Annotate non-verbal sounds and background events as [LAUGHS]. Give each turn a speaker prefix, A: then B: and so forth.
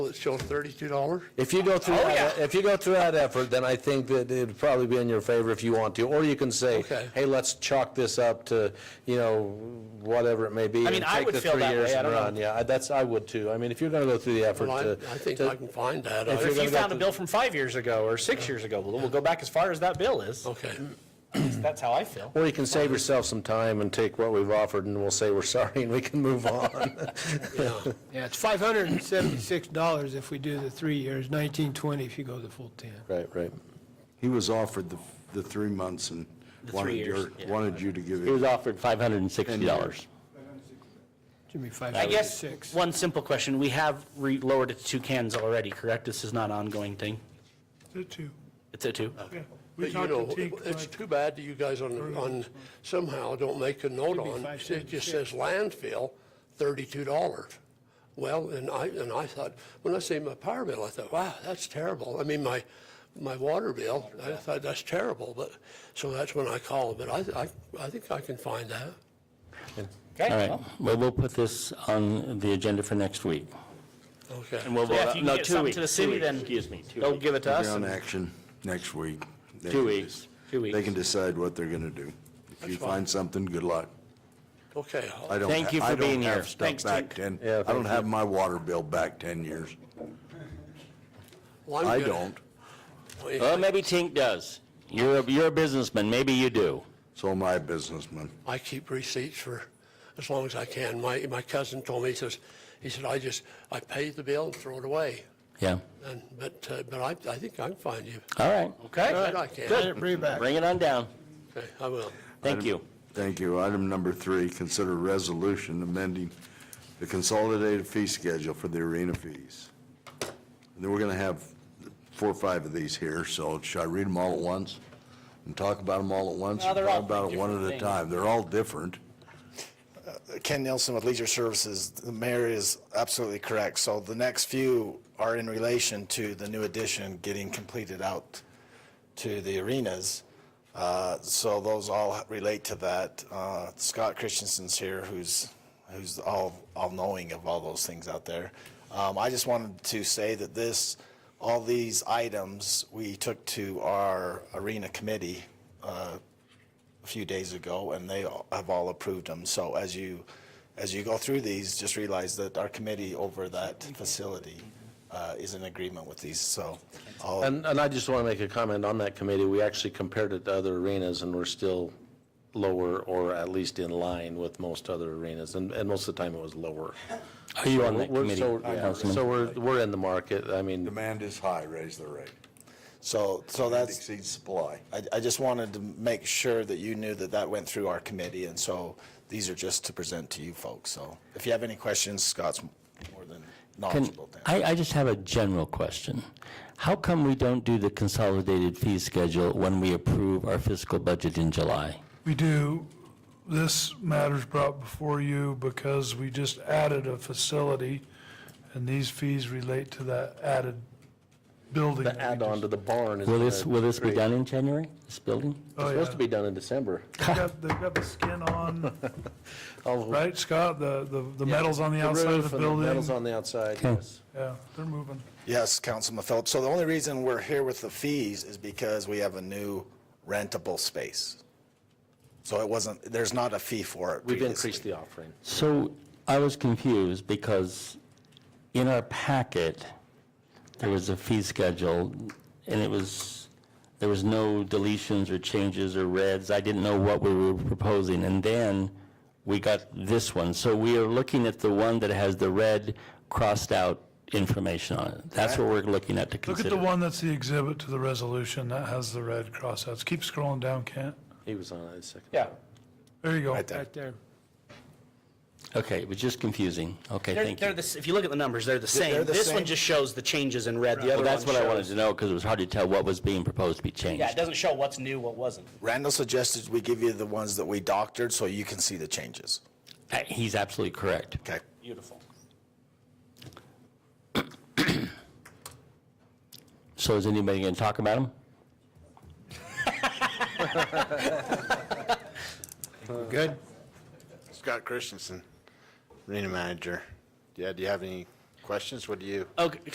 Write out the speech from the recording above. A: It shows thirty-two dollars.
B: If you go through,
A: Oh,
B: that-
A: yeah.
B: if you go through that effort, then I think that it'd probably be in your favor if you want to. Or you can say,
A: Okay.
B: hey, let's chalk this up to, you know, whatever it may be.
C: I mean,
B: and
C: I
B: take
C: would
B: the
C: feel
B: three
C: that
B: years
C: way. I
B: and
C: don't know.
B: run. Yeah, I- that's, I would too. I mean, if you're going to go through the effort
A: Well, I,
B: to.
A: I think
B: to-
A: I can find that.
B: If
A: I-
B: you're
C: If you
B: gonna go
C: found a
B: to-
C: bill from five years ago or six years ago, we'll, we'll go back as far as that bill is.
A: Okay,
C: That's how I feel.
B: Or you can save yourself some time and take what we've offered and we'll say we're [LAUGHS] sorry and we can move on.
A: yeah.
D: Yeah, it's five hundred and seventy-six dollars if we do the three years, nineteen twenty if you go the full ten.
B: Right, right.
E: He was offered the, the three months and
C: The three
E: wanted
C: years,
E: your,
C: yeah.
E: wanted you to give
F: He
E: it.
F: was offered $560.
D: Should be five
C: I guess,
D: seventy-six.
C: one simple question, we have re- lowered it to two cans already, correct? This is not an ongoing thing?
G: The two,
C: It's at two?
G: yeah.
A: But
G: We
A: you
G: talked to
A: know,
G: Tink,
A: it's
G: like,
A: too bad that you guys on, on, somehow don't make a note
D: be
A: on, it just
D: 576.
A: says landfill, thirty-two dollars. Well, and I, and I thought, when I seen my power bill, I thought, wow, that's terrible. I mean, my, my water bill, I thought, that's terrible, but, so that's when I called, but I, I, I think I can find that.
C: Okay,
F: All right,
C: well,
F: well, we'll put this on the agenda for next week.
A: Okay.
F: And we'll
C: Yeah, if
F: vote,
C: you
F: on-
C: can
F: no,
C: get
F: two
C: something
F: weeks.
C: to the
F: two
C: city,
F: weeks,
C: then
F: Excuse me, two
C: They'll
F: weeks.
C: give it to us.
E: Ground
C: and-
E: action next week. They
F: Two
E: can
F: weeks,
E: just-
F: two
E: They can
F: weeks.
E: decide what they're going to do. If you find something, good luck.
A: Okay,
E: I don't,
F: Thank
E: ha-
F: you for
E: I don't
F: being
E: have
F: here.
E: stuff
C: Thanks,
E: back
C: Tink.
E: 10
B: Yeah,
E: I
B: thank
E: don't have my water bill back 10 years.
A: well, I'm
E: I
A: good.
E: don't,
A: Well, yeah,
F: Well, maybe Tink does. You're, a- you're a businessman, maybe you do.
E: so am I a businessman.
A: I keep receipts for as long as I can. My, my cousin told me, he says, he said, I just, I pay the bill and throw it away.
F: Yeah,
A: And, but, uh, but I, I think I can find you.
F: all right.
A: But
C: Okay,
A: I can.
D: Let it bring it back.
F: Bring it on down.
A: Okay, I will.
F: Thank you.
E: Thank you. Item number three, consider resolution amending the consolidated fee schedule for the arena fees. And then we're going to have four or five of these here, so should I read them all at once? And talk about them all at once?
C: No,
E: or
C: they're all
E: Talk about it one
C: different
E: at a
C: things.
E: time. They're all different.
H: Ken Nielsen with Leisure Services, the mayor is absolutely correct. So the next few are in relation to the new addition getting completed out to the arenas. Uh, So those all relate to that. Uh, Scott Christensen's here, who's, who's all, all-knowing of all those things out there. Um, I just wanted to say that this, all these items, we took to our arena committee uh, a few days ago, and they all- have all approved them. So as you, as you go through these, just realize that our committee over that facility uh, is in agreement with these, so I'll
B: And, and I just want to make a comment on that committee. We actually compared it to other arenas and we're still lower or at least in line with most other arenas. And, and most of the time it was lower.
F: Are Oh, you on that
B: We're-
F: committee,
B: so-
F: Councilman?
B: So we're, we're in the market. I mean,
E: Demand is high, raise the rate.
H: So, so that's,
E: Exceeds supply.
H: I, I just wanted to make sure that you knew that that went through our committee, and so these are just to present to you folks. So if you have any questions, Scott's more than
F: Can-
H: knowledgeable. to answer.
F: I, I just have a general question. How come we don't do the consolidated fee schedule when we approve our fiscal budget in July?
G: We do, this matter's brought before you because we just added a facility, and these fees relate to that added building.
B: the add-on to the barn is.
F: Will this,
B: gonna
F: will this be
B: create-
F: done in January, this building?
G: Oh,
B: It's supposed
G: yeah.
B: to be done in December.
G: [LAUGHS] They've got- they've got the skin on,
B: [LAUGHS] All the-
G: right, Scott? The, the the metal's on the outside
B: roof
G: of the
B: and Metal's
G: building.
B: on the outside, yes.
G: Yeah, they're moving.
H: Yes, Councilman Phillips. So the only reason we're here with the fees is because we have a new rentable space. So it wasn't, there's not a fee for it
B: We've
H: previously.
B: increased the offering.
F: So I was confused because in our packet, there was a fee schedule and it was, there was no deletions or changes or reds. I didn't know what we were proposing. And then we got this one. So we are looking at the one that has the red crossed out information on it. That's what we're looking at to
G: Look at
F: consider.
G: the one that's the exhibit to the resolution that has the red crossouts. Keep scrolling down, Kent.
B: He was on it a second.
C: yeah.
G: There you go.
H: Right there.
D: Right there.
F: Okay, it was just confusing. Okay,
C: They're,
F: thank
C: they're
F: you.
C: the, s- if you look at the numbers, they're the
H: they're
C: same.
H: the
C: This one
H: same.
C: just shows the changes in red, the
F: Well,
C: other one
F: that's what I wanted
C: shows.
F: to know because it was hard to tell what was being proposed to be
C: Yeah, it
F: changed.
C: doesn't show what's new, what wasn't.
H: Randall suggested we give you the ones that we doctored so you can see the changes.
F: Uh, He's absolutely correct.
H: Okay?
C: Beautiful.
F: So is anybody going to talk about them?
I: Good. Scott Christensen, arena manager. Yeah, do you have any questions? What do you?
C: Okay,